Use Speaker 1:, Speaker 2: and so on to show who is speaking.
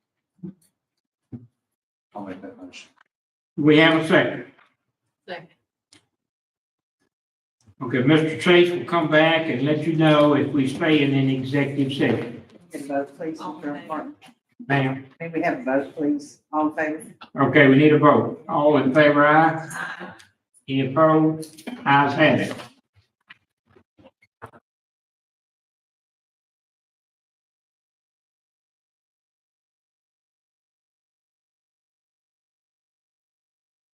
Speaker 1: I'll make that motion.
Speaker 2: We have a second.
Speaker 3: Second.
Speaker 2: Okay, Mr. Chase will come back and let you know if we stay in an executive session.
Speaker 4: Can vote, please,
Speaker 3: All in
Speaker 4: for
Speaker 3: favor?
Speaker 4: part-
Speaker 2: Ma'am,
Speaker 4: may we have a vote, please? All in favor?
Speaker 2: okay, we need a vote. All in favor, aye? Any opposed? Ayes have it.